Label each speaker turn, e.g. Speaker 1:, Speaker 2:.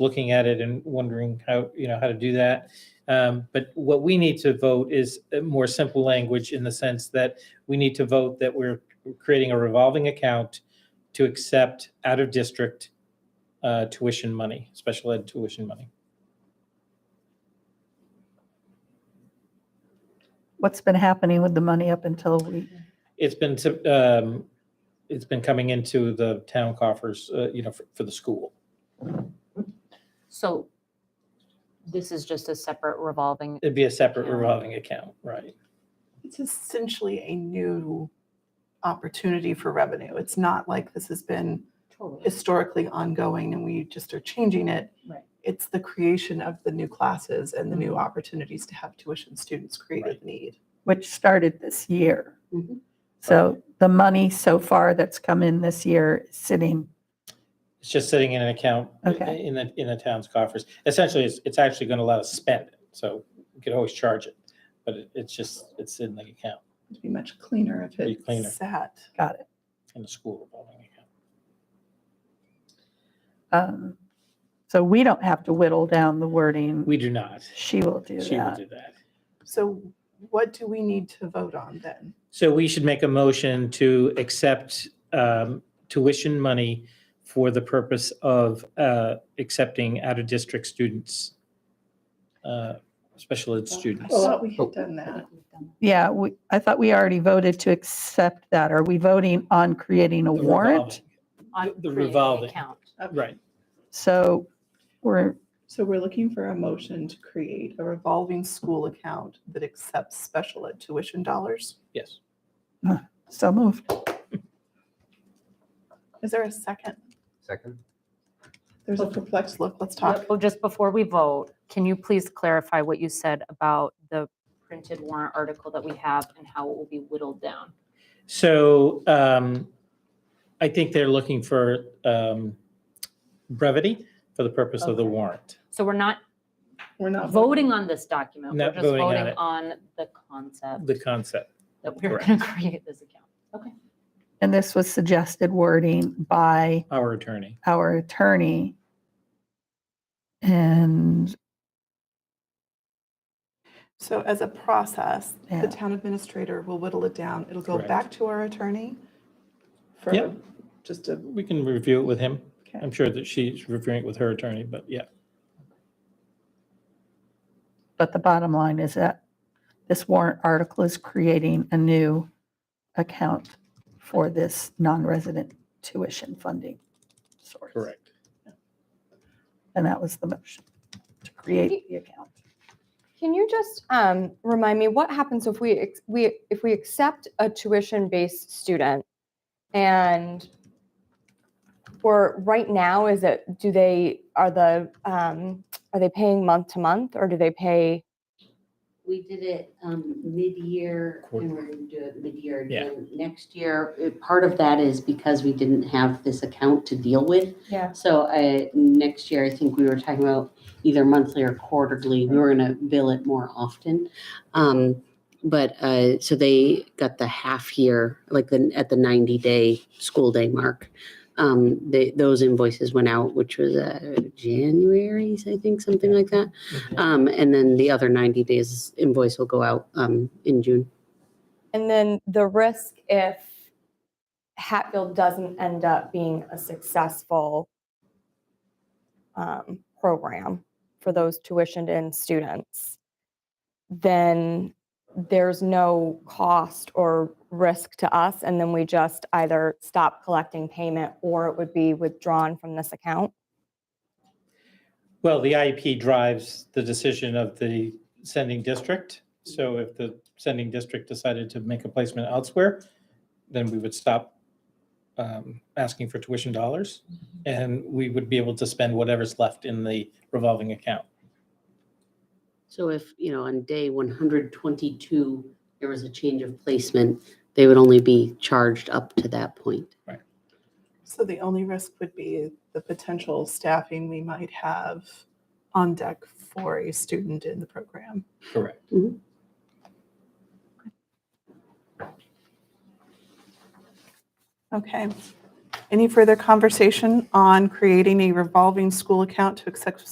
Speaker 1: looking at it and wondering how, you know, how to do that. Um, But what we need to vote is a more simple language in the sense that we need to vote that we're creating a revolving account to accept out-of-district uh, tuition money, special ed tuition money.
Speaker 2: What's been happening with the money up until we,
Speaker 1: It's been, to- um, it's been coming into the town coffers, uh, you know, for for the school.
Speaker 3: So this is just a separate revolving,
Speaker 1: It'd be a separate
Speaker 3: Yeah.
Speaker 1: revolving account, right?
Speaker 4: It's essentially a new opportunity for revenue. It's not like this has been
Speaker 3: totally,
Speaker 4: historically ongoing and we just are changing it.
Speaker 3: Right.
Speaker 4: It's the creation of the new classes and the new opportunities to have tuition students create
Speaker 1: Mm-hmm. Right.
Speaker 4: with need.
Speaker 2: which started this year?
Speaker 1: Mm-hmm.
Speaker 4: Mhm.
Speaker 2: So the money so far that's come in this year is sitting,
Speaker 1: It's just sitting in an account
Speaker 2: Okay.
Speaker 1: in the, in the town's coffers. Essentially, it's, it's actually going to let us spend it. So we could always charge it, but it- it's just, it's in the account,
Speaker 4: It'd be much cleaner if
Speaker 1: Be
Speaker 4: it
Speaker 1: cleaner.
Speaker 4: sat.
Speaker 2: got it.
Speaker 1: in the school revolving account.
Speaker 2: Um, So we don't have to whittle down the wording.
Speaker 1: We do not.
Speaker 2: She will do
Speaker 1: She will
Speaker 2: that.
Speaker 1: do that.
Speaker 4: So what do we need to vote on then?
Speaker 1: So we should make a motion to accept um, tuition money for the purpose of uh, accepting out-of-district students, uh, special ed
Speaker 4: I
Speaker 1: students. Oh.
Speaker 4: thought we had done that.
Speaker 2: Yeah, we, I thought we already voted to accept that. Are we voting on creating a
Speaker 1: The
Speaker 2: warrant?
Speaker 3: on
Speaker 1: The- the
Speaker 3: creating an
Speaker 1: revolving.
Speaker 3: account.
Speaker 1: revolving- Right.
Speaker 2: So we're,
Speaker 4: So we're looking for a motion to create a revolving school account that accepts special ed tuition dollars.
Speaker 1: Yes.
Speaker 2: so moved.
Speaker 4: Is there a second?
Speaker 5: Second?
Speaker 4: There's a perplexed look. Let's talk.
Speaker 3: Well, Oh, just before we vote, can you please clarify what you said about the printed warrant article that we have and how it will be whittled down?
Speaker 1: So um, I think they're looking for um, brevity for the purpose of the
Speaker 3: Okay.
Speaker 1: warrant.
Speaker 3: So we're not
Speaker 4: We're not
Speaker 3: voting on this document, we're
Speaker 1: Not
Speaker 3: just
Speaker 1: voting on
Speaker 3: voting
Speaker 1: it.
Speaker 3: on the concept
Speaker 1: The concept,
Speaker 3: that we're going to create this account.
Speaker 2: And this was suggested wording by
Speaker 1: our attorney.
Speaker 2: our attorney. And
Speaker 4: So as a process,
Speaker 2: Yeah.
Speaker 4: the town administrator will whittle it down. It'll go
Speaker 1: Correct.
Speaker 4: back to our attorney for
Speaker 1: Yep.
Speaker 4: just a,
Speaker 1: We can review it with him.
Speaker 4: okay.
Speaker 1: I'm sure that she's reviewing it with her attorney, but yeah.
Speaker 2: But the bottom line is that this warrant article is creating a new account for this non-resident tuition funding source. And that was the motion, to create the account.
Speaker 6: Can you just um, remind me what happens if we ex- we if we accept a tuition-based student and or right now is it do they are the um, are they paying month to month or do they pay
Speaker 7: We did it um, mid-year and
Speaker 1: Quarter.
Speaker 7: we're going to do it mid-year
Speaker 1: Yeah.
Speaker 7: again next year. It- Part of that is because we didn't have this account to deal with.
Speaker 6: Yeah.
Speaker 7: So uh, next year, I think we were talking about either monthly or quarterly. We were going to bill it more often. Um, But uh, so they got the half year, like the, at the 90-day school day mark. Um, they- Those invoices went out, which was uh, January's, I think, something like that. Um, and then the other ninety days invoice will go out, um, in June.
Speaker 6: and then the risk if Hatfield doesn't end up being a successful um, program for those tuitioned in students, then there's no cost or risk to us. And then we just either stop collecting payment or it would be withdrawn from this account.
Speaker 1: Well, the IEP drives the decision of the sending district. So if the sending district decided to make a placement elsewhere, then we would stop um, asking for tuition dollars and we would be able to spend whatever's left in the revolving account.
Speaker 7: So if, you know, on day one hundred twenty-two, there was a change of placement, they would only be charged up to that point.
Speaker 4: So the only risk would be the potential staffing we might have on deck for a student in the program.
Speaker 1: Correct.
Speaker 4: Okay. Any further conversation on creating a revolving school account to accept